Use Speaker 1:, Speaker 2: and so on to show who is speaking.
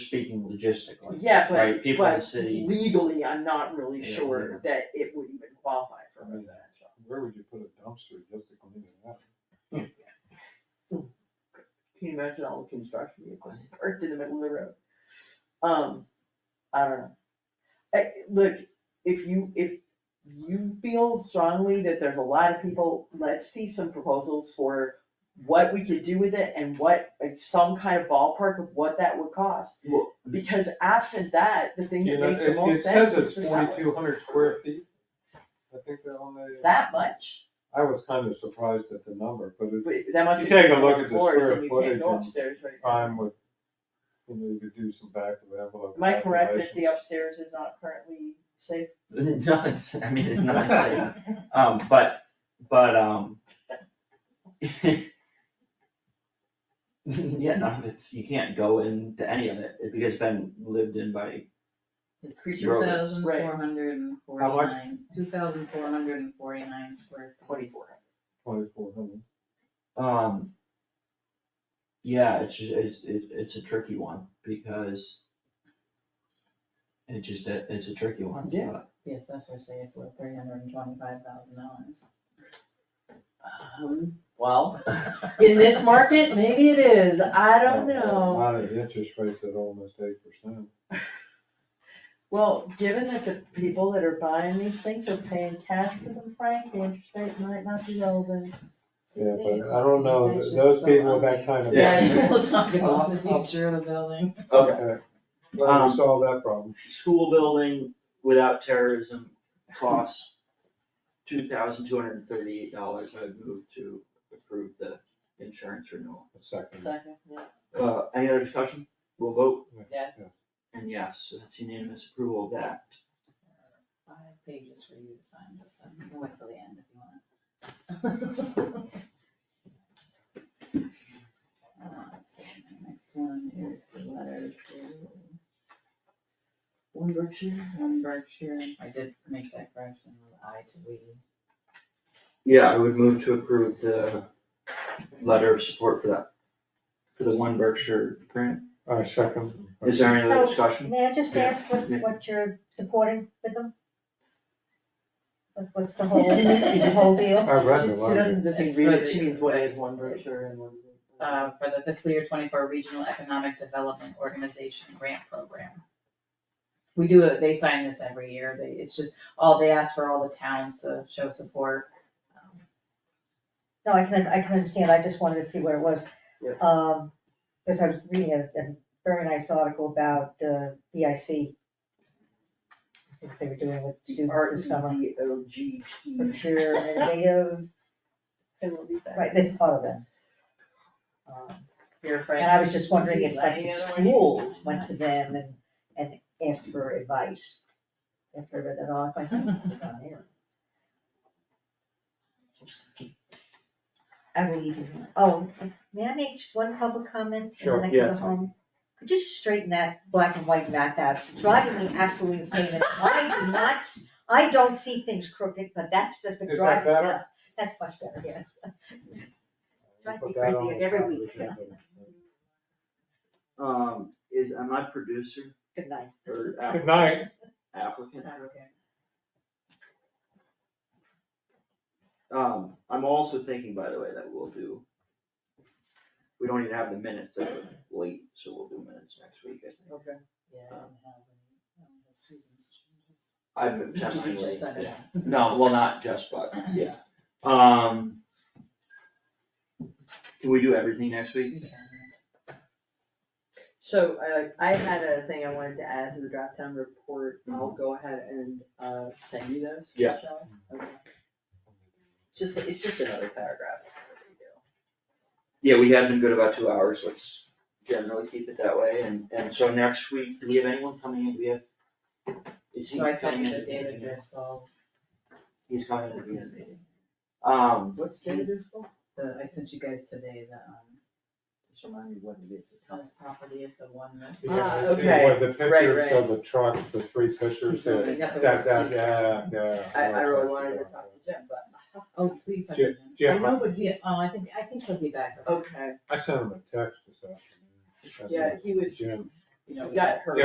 Speaker 1: speaking logistically,
Speaker 2: Yeah, but,
Speaker 1: right, people in the
Speaker 2: but
Speaker 1: city,
Speaker 2: legally, I'm not really
Speaker 1: Yeah,
Speaker 2: sure that it would even qualify for
Speaker 3: Right.
Speaker 2: residential.
Speaker 3: Where would you put a dumpster just to clean it up?
Speaker 2: Can you imagine all the construction vehicles parked in the middle of the road? Um, I don't know. I, look, if you, if you feel strongly that there's a lot of people, let's see some proposals for what we could do with it and what, like, some kind of ballpark of what that would cost.
Speaker 3: Well-
Speaker 2: Because absent that, the thing
Speaker 3: You
Speaker 2: that
Speaker 3: know,
Speaker 2: makes the
Speaker 3: it, it
Speaker 2: most sense
Speaker 3: says
Speaker 2: is
Speaker 3: it's
Speaker 2: to sell it.
Speaker 3: forty-two hundred square feet. I think they're on the,
Speaker 2: That much,
Speaker 3: I was kind of surprised at the number, but it's
Speaker 2: but that must
Speaker 3: You
Speaker 2: be
Speaker 3: take a look at the
Speaker 2: floors
Speaker 3: square
Speaker 2: and we can't
Speaker 3: footage
Speaker 2: go
Speaker 3: and-
Speaker 2: upstairs right now.
Speaker 3: fine with, you know, you could do some back of the envelope.
Speaker 2: Am I correct that
Speaker 3: calculations.
Speaker 2: the upstairs is not currently safe?
Speaker 1: nothing's, I mean, it's not safe, um, but, but, um. Yeah, none of it's, you can't go into any of it, because it's been lived in by,
Speaker 4: It's
Speaker 1: Creepy
Speaker 4: two
Speaker 1: road.
Speaker 4: thousand four hundred and
Speaker 3: How much?
Speaker 4: forty-nine, two thousand four hundred and forty-nine square feet.
Speaker 2: Twenty-four.
Speaker 3: Twenty-four hundred.
Speaker 1: um. Yeah, it's, ju- it's, it- it's a tricky one, because. It just, it's a tricky one,
Speaker 2: Yeah.
Speaker 1: but-
Speaker 4: Yes, that's what I say, it's worth three hundred and twenty-five thousand dollars.
Speaker 2: Um, well, in this market, maybe it is, I don't know.
Speaker 3: Not an interest rate at almost eight percent.
Speaker 2: Well, given that the people that are buying these things are paying cash for them, Frank, the interest rate might not be relevant.
Speaker 3: Yeah, but I don't know,
Speaker 4: That's just
Speaker 3: those
Speaker 4: so
Speaker 3: people with that
Speaker 4: ugly.
Speaker 3: kind of.
Speaker 1: Yeah.
Speaker 4: People talking about the
Speaker 3: I'll- I'll-
Speaker 4: future of the building.
Speaker 3: Okay. Glad
Speaker 1: Um,
Speaker 3: we solved that problem.
Speaker 1: school building without terrorism costs two thousand two hundred and thirty-eight dollars, I move to approve the insurance renewal.
Speaker 3: A second.
Speaker 2: Second, yeah.
Speaker 1: Uh, any other discussion? We'll vote,
Speaker 2: Yeah.
Speaker 1: and yes, so that's unanimous approval of that.
Speaker 4: Five pages for you to sign this, time. you can wait till the end if you want. Uh, let's see, the Next one is the letter to
Speaker 2: One Berkshire.
Speaker 4: one Berkshire, I did make that correction, with I to we.
Speaker 1: Yeah, I would move to approve the letter of support for that, for the One Berkshire grant.
Speaker 3: I second.
Speaker 1: Is there any other
Speaker 5: So-
Speaker 1: discussion?
Speaker 5: May I just ask what,
Speaker 1: Yeah.
Speaker 5: what you're supporting with them? What- What's the whole, the whole deal?
Speaker 3: I read
Speaker 2: She
Speaker 3: the
Speaker 2: doesn't
Speaker 3: letter.
Speaker 2: just mean
Speaker 4: It's
Speaker 2: read it,
Speaker 4: really-
Speaker 2: she means what is one Berkshire and one.
Speaker 4: Uh, for the fiscal year twenty-four Regional Economic Development Organization Grant Program. We do, it- they sign this every year, they, it's just, all, they ask for all the towns to show support. Um,
Speaker 5: No, I can, I can understand, I just wanted to see what it was.
Speaker 2: Yeah.
Speaker 5: Um, because I was reading a, a very nice article about, uh, BIC. Since they were doing with students this summer.
Speaker 2: R E O G P.
Speaker 5: Berkshire Innovative, right, that's part of them. Um,
Speaker 4: Here, Frank.
Speaker 5: And I was just wondering if
Speaker 4: Is
Speaker 5: like
Speaker 4: any
Speaker 5: the
Speaker 4: other one?
Speaker 5: schools went to them and, and asked for advice. If I read that off, I think it's on here. I will even, oh, may I make just one public comment?
Speaker 3: Sure,
Speaker 5: And then I
Speaker 1: yeah,
Speaker 5: can go
Speaker 1: it's fine.
Speaker 5: home. Could you straighten that black and white map out? It's driving me absolutely insane. And I do not, s- I don't see things crooked, but that's just been
Speaker 3: Is that
Speaker 5: driving me
Speaker 3: better?
Speaker 5: nuts. That's much better, yes. Drives me
Speaker 3: Put that
Speaker 5: crazy
Speaker 3: on the
Speaker 5: every
Speaker 3: top of
Speaker 5: week.
Speaker 3: the agenda.
Speaker 1: Um, is, am I producer
Speaker 5: Good night.
Speaker 1: or
Speaker 3: Good
Speaker 1: applicant?
Speaker 3: night.
Speaker 1: Applicant?
Speaker 4: Okay.
Speaker 1: Um, I'm also thinking, by the way, that we'll do. We don't even have the minutes that are late, so we'll do minutes next week, I think.
Speaker 2: Okay.
Speaker 4: Yeah, I don't have any, um, Susan's.
Speaker 1: I've been testing
Speaker 4: Just
Speaker 1: late.
Speaker 4: send it out.
Speaker 1: No, well, not just, but, yeah. Um. Can we do everything next week?
Speaker 4: You can.
Speaker 2: So uh, I, I had a thing I wanted to add to the draft town report, I'll go ahead and, uh, send you those.
Speaker 1: Yeah.
Speaker 2: shall I? Okay. It's just, it's just another paragraph.
Speaker 1: Yeah, we have been good about two hours, let's generally keep it that way, and, and so next week, do we have anyone coming in, do we have? Is he
Speaker 4: So I sent
Speaker 1: coming
Speaker 4: you
Speaker 1: in?
Speaker 4: the David Driscoll,
Speaker 1: He's coming in,
Speaker 4: this
Speaker 1: yes. um,
Speaker 2: What's
Speaker 4: Jersey
Speaker 2: School?
Speaker 4: the, I sent you guys today the, um,
Speaker 2: Just remind me what it is.
Speaker 4: Thomas property is the one that.
Speaker 3: You have
Speaker 2: Ah,
Speaker 3: to see
Speaker 2: okay.
Speaker 3: what the
Speaker 2: Right, right.
Speaker 3: pictures of the truck, the three pictures,
Speaker 4: So
Speaker 3: that,
Speaker 4: they got the
Speaker 3: that, that,
Speaker 4: receipt.
Speaker 3: yeah, yeah.
Speaker 2: I, I really wanted to talk to Jim, but.
Speaker 4: Oh, please. I
Speaker 3: Jim-
Speaker 4: didn't.
Speaker 2: I know,
Speaker 3: Jim,
Speaker 2: but
Speaker 4: Yes,
Speaker 2: he's,
Speaker 4: oh, I think, I think he'll be back.
Speaker 2: okay,
Speaker 3: I sent him a text this afternoon.
Speaker 2: yeah, he was,
Speaker 3: Jim,
Speaker 4: you know,
Speaker 2: Yes.
Speaker 4: her